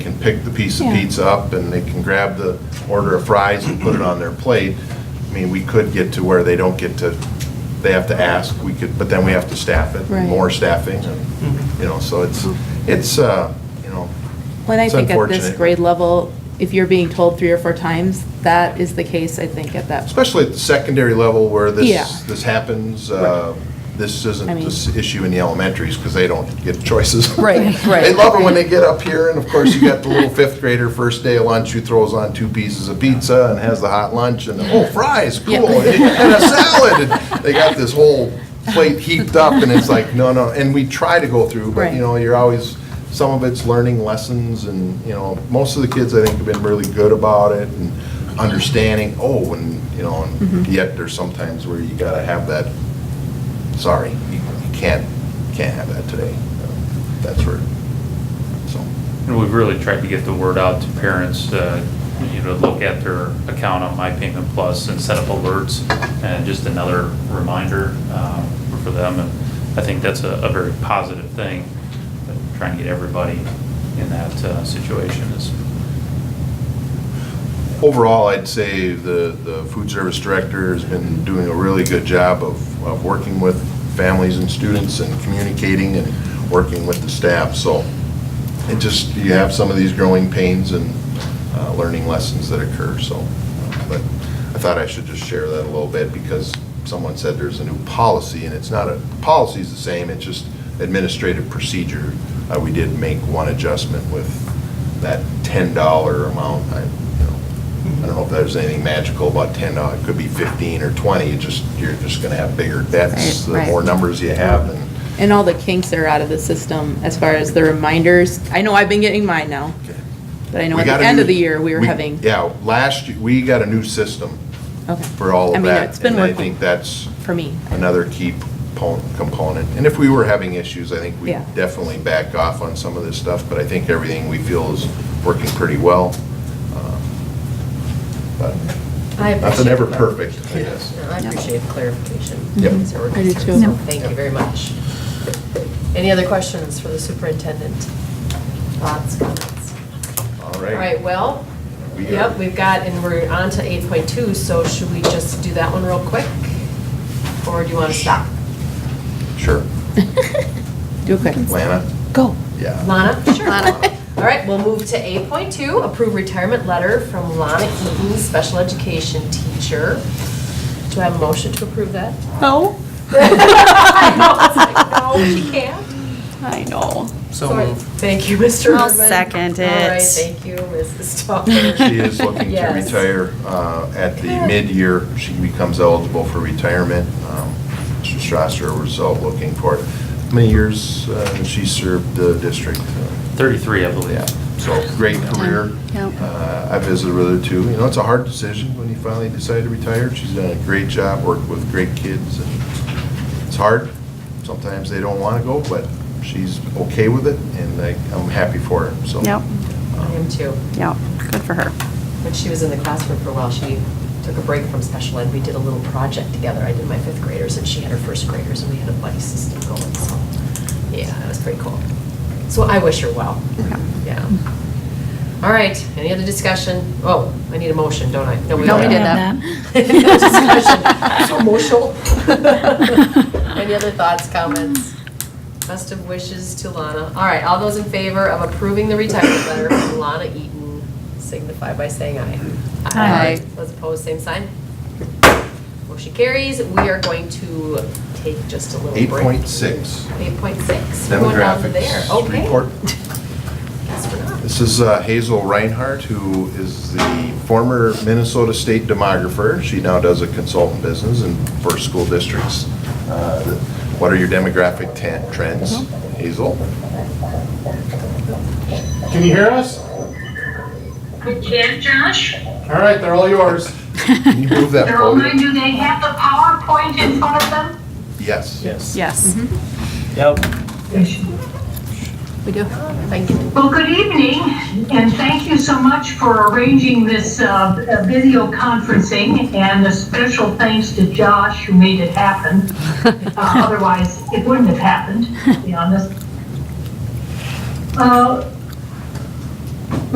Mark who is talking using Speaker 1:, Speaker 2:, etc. Speaker 1: pick the piece of
Speaker 2: Yeah.
Speaker 1: pizza up and they can grab the order of fries and put it on their plate. I mean, we could get to where they don't get to, they have to ask, we could, but then we have to staff it,
Speaker 2: Right. Mm-hmm.
Speaker 1: more staffing, and, you know, so it's, it's, uh, you know,
Speaker 2: When I
Speaker 1: It's
Speaker 2: think at this
Speaker 1: unfortunate.
Speaker 2: grade level, if you're being told three or four times, that is the case, I think, at that.
Speaker 1: especially at the secondary level where
Speaker 2: Yeah.
Speaker 1: this, this happens, uh, this isn't
Speaker 2: I mean-
Speaker 1: this issue in the elementaries, because they don't get choices.
Speaker 3: Right, right.
Speaker 1: They love it when they get up here, and of course, you got the little fifth grader, first day of lunch, who throws on two pieces of pizza and has the hot lunch, and, oh, fries, cool, and and a salad, and they got this whole plate heaped up, and it's like, no, no, and we try to go through, but,
Speaker 2: Right.
Speaker 1: you know, you're always, some of it's learning lessons, and, you know, most of the kids, I think, have been really good about it, and understanding, oh, and, you know, and yet there's sometimes where you gotta have that, sorry, you you can't, can't have that today, that's where, so.
Speaker 4: And we've really tried to get the word out to parents, uh, you know, look at their account on My Payment Plus and set up alerts, and just another reminder um, for them. And I think that's a a very positive thing, but trying to get everybody in that uh, situation is,
Speaker 1: Overall, I'd say the, the food service director has been doing a really good job of, of working with families and students and communicating and working with the staff, so it just, you have some of these growing pains and uh, learning lessons that occur, so. But I thought I should just share that a little bit because someone said there's a new policy and it's not a, policy's the same, it's just administrative procedure. Uh, We did make one adjustment with that ten dollar amount. I, you know, I don't know if there's anything magical about ten dollars, it could be fifteen or twenty, it just, you're just gonna have bigger debts. The
Speaker 2: Right, right.
Speaker 1: more numbers you have and
Speaker 2: And all the kinks are out of the system as far as the reminders. I know I've been getting mine now, but I know
Speaker 1: We
Speaker 2: at
Speaker 1: got a
Speaker 2: the end
Speaker 1: new-
Speaker 2: of the year, we were having.
Speaker 1: Yeah, last, year we got a new system
Speaker 2: Okay.
Speaker 1: for all
Speaker 2: I
Speaker 1: of
Speaker 2: mean,
Speaker 1: that.
Speaker 2: it's been
Speaker 1: And I
Speaker 2: working
Speaker 1: think that's
Speaker 2: for me.
Speaker 1: another key po- component. And if we were having issues, I think we
Speaker 2: Yeah.
Speaker 1: definitely back off on some of this stuff, but I think everything we feel is working pretty well. Uh, But
Speaker 3: I appreciate
Speaker 1: nothing ever
Speaker 3: it.
Speaker 1: perfect, I guess.
Speaker 3: No, I appreciate the clarification.
Speaker 1: Yep.
Speaker 3: So we're
Speaker 2: I do
Speaker 3: good.
Speaker 2: too.
Speaker 3: So Thank you very much. Any other questions for the superintendent? Thoughts, comments?
Speaker 1: All
Speaker 3: All right,
Speaker 1: right.
Speaker 3: well,
Speaker 1: We are-
Speaker 3: yep, we've got, and we're on to 8.2, so should we just do that one real quick? Or do you want to stop?
Speaker 1: Sure.
Speaker 2: Do it quick.
Speaker 1: Lana?
Speaker 2: Go.
Speaker 1: Yeah.
Speaker 3: Lana? Sure. All right, we'll move to 8.2, approve retirement letter from Lana Eaton, special education teacher. Do I have a motion to approve that?
Speaker 2: No,
Speaker 3: No, she can't.
Speaker 2: I know.
Speaker 5: So moved.
Speaker 3: Thank you, Mr.
Speaker 6: I'll
Speaker 3: Urban.
Speaker 6: second
Speaker 3: All right,
Speaker 6: it.
Speaker 3: thank you, Mrs. Stoffer.
Speaker 1: She is looking to
Speaker 3: Yes.
Speaker 1: retire uh, at the
Speaker 3: Good.
Speaker 1: mid-year. She becomes eligible for retirement. Um, Mr. Strasser was out looking for it. How many years uh, she served the district? Uh,
Speaker 4: 33, I believe.
Speaker 1: Yeah, so great career. Uh, I visited with her too. You know, it's a hard decision when you finally decide to retire. She's done a great job, worked with great kids, and it's hard. Sometimes they don't want to go, but she's okay with it, and I- I'm happy for her, so. Um,
Speaker 6: Yep.
Speaker 3: I am too.
Speaker 6: Yeah, good for her.
Speaker 3: When she was in the classroom for a while, she took a break from special ed. We did a little project together. I did my fifth graders and she had her first graders and we had a buddy system going, so, yeah, that was pretty cool. So I wish her well.
Speaker 6: Yeah.
Speaker 3: Yeah. All right, any other discussion? Oh, I need a motion, don't I? No, we
Speaker 6: No, we
Speaker 3: already
Speaker 6: did
Speaker 3: Any other discussion? So emotional. Any other thoughts, comments? Best of wishes to Lana. All right, all those in favor of approving the retirement letter from Lana Eaton signify by saying aye.
Speaker 2: Aye.
Speaker 3: Those opposed, same sign. Motion carries. We are going to take just a little break.
Speaker 1: 8.6,
Speaker 3: 8.6. We're going down to there.
Speaker 1: demographics
Speaker 3: Okay.
Speaker 1: report.
Speaker 3: Guess we're not.
Speaker 1: This is uh, Hazel Reinhardt, who is the former Minnesota State demographer. She now does a consultant business in first school districts. Uh, What are your demographic tan- trends,
Speaker 3: Mm-hmm.
Speaker 1: Hazel?
Speaker 7: Can you hear us?
Speaker 8: We can, Josh.
Speaker 7: All right, they're all yours.
Speaker 1: Can you move that
Speaker 8: They're all
Speaker 1: podium?
Speaker 8: going, do they have the PowerPoint in front of them?
Speaker 1: Yes.
Speaker 5: Yes.
Speaker 2: Mm-hmm.
Speaker 6: Yes.
Speaker 5: Yep.
Speaker 2: We do.
Speaker 3: Thank you.
Speaker 8: Well, good evening, and thank you so much for arranging this uh, video conferencing, and a special thanks to Josh who made it happen. Uh, Otherwise, it wouldn't have happened, to be honest. Uh,